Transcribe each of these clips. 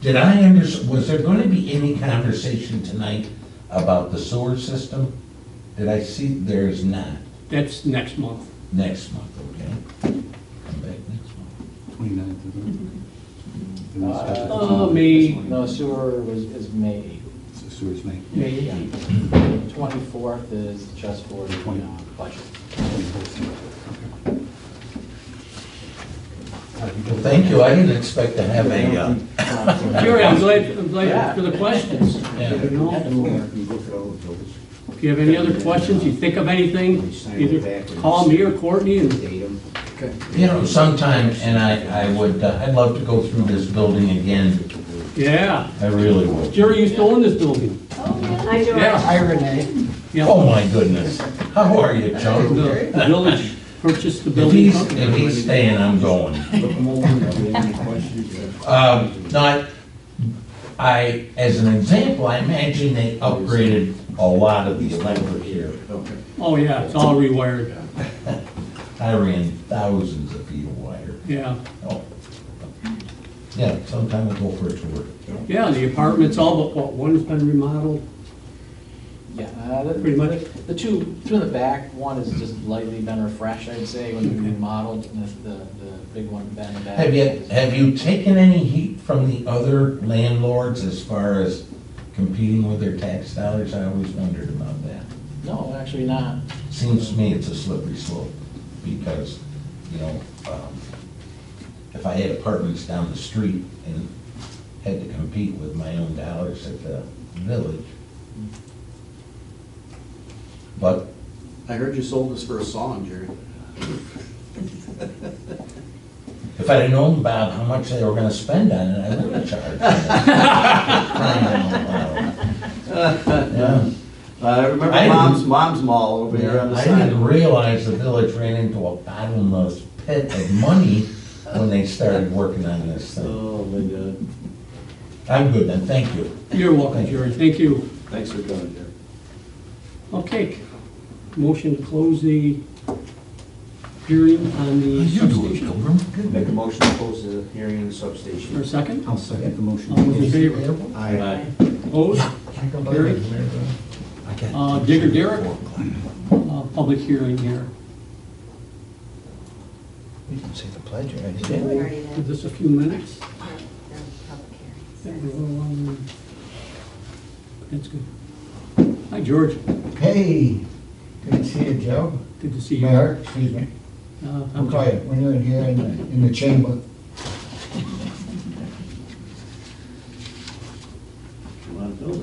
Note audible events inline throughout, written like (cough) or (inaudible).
Did I under, was there gonna be any conversation tonight about the sewer system? Did I see, there is not, That's next month. next month, okay? Come back next month. 29th, (laughs) isn't it? The next special Uh, meeting May- this No, morning. sewer was, is May So Sewers May. May Yeah. 18th. Twenty-fourth is just for the Twenty. uh, budget. 24th. Okay. Well, thank you, I didn't expect to (laughs) have a, uh, Jerry, I'm glad, I'm glad Yeah. for the questions. Yeah. You know, You look at all the bills, If you have any other questions, you think of anything, either call me or Courtney and date them. you know, sometime, and I, I would, uh, I'd love to go through this building again, Yeah, I really would. Jerry used to own this building. I do. Yeah. Hi Renee. Yeah. Oh, my goodness, how are you, Joe? The village purchased the If building. he's, if he's staying, I'm going. Look them over, if you have any questions. uh, Um, Not, I, as an example, I imagine they upgraded a lot of the electric here. Okay. Oh, yeah, it's all rewired, I ran thousands of feet of wire. yeah. Oh, Yeah, sometime we'll go for a tour. Yeah, the apartments, all but, what, one's been remodeled, Yeah, uh, the- Pretty much. The two, two in the back, one has just lightly been refreshed, I'd say, when we remodeled, and the, the the big one been in the back. Have you, is- have you taken any heat from the other landlords as far as competing with their tax dollars? I always wondered about that. No, actually not. Seems to me it's a slippery slope because, you know, um, if I had apartments down the street and had to compete with my own dollars at the village. But (laughs) I heard you sold this for a song, Jerry. if I'd have known, Bob, how much they were gonna spend on it, I would have charged. them. Yeah. Uh, I remember I didn't- Mom's, Mom's Mall over here on the I side. didn't realize the village ran into a bottomless pit of money when they started working on this thing. Oh, my God. I'm good then, thank you. you're welcome, Jerry, thank you. Thanks for coming, Jerry. Okay, motion to close the hearing on the substation. Make a motion to close the hearing in the substation. For a second, I'll second the all those in motion. favor? Aye. Opposed? Carried. Uh, Digger Derrick, uh, public hearing here. You didn't say the pledge, right? Give this a few minutes. Yeah, we're a little longer. That's good. Hi, George, Hey, good to see you, Joe. good to see you. Mayor, excuse me. Uh, I'm I'm- quiet when you're in here in the, in the chamber.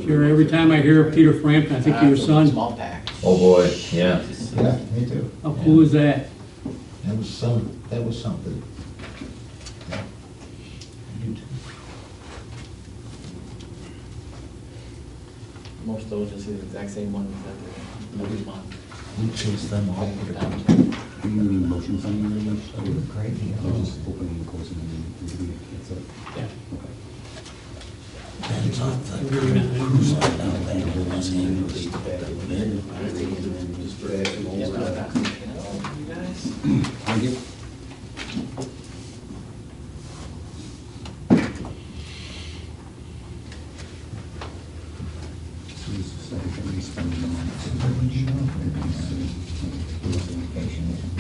Jerry, every time I hear Peter Frampton, I think of your son. Uh, Small pack. Oh, boy, yeah. Yeah, me too. How cool Uh, is that? That was some, that was something. Most of those just see the exact same one that every month. We chased them all over the country. Oh, Do you need motions on any of those? Great Or deal. just opening and closing the meeting? That's it. Yeah. Okay. That's not the cruise line down there in Los Angeles. Thank you.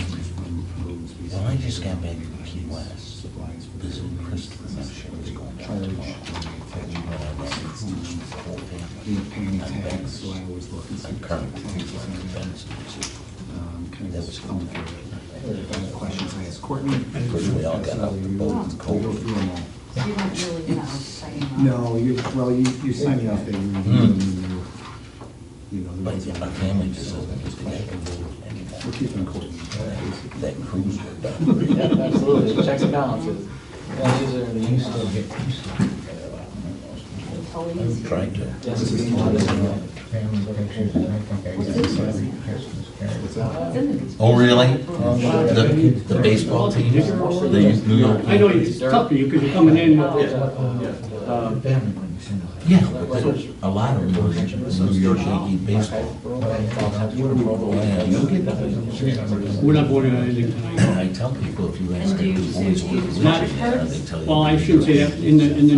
Well, I just got back from Key West, visiting Christopher, I'm sure he's going down tomorrow. And you know, I got this whole thing. paying tax, so I always look and see. I'm currently cruise line expenses, Um, kind That of was just come through it. If I have questions, I ask Courtney. Because we all got out the boat and We'll go cold. through them all. You don't really know, signing off. No, you, well, you, you signed off that you were, you know, But yeah, there was- Hmm. my family just doesn't get together and We're that- keeping Courtney. that cruise were done. Yeah, absolutely, checks and balances. Yeah, these are the You used still ones. get, you still get about Always. Tried to. Yes, it's been a lot of- family pictures, and I think I got some Christmas cards. It's in the- Oh, really? Oh, sure. The, the baseball team, the New York. I know it's tough, you, Uh, because you're coming in with, Um, Family when you send it. Yeah, but there's a lot of them are New York Yankee baseball. Yeah, you'll get that. we're not voting on anything tonight. I tell people, if you ask And do them, you who's say always you- religion, they tell you. Well, I shouldn't say that, in the, in the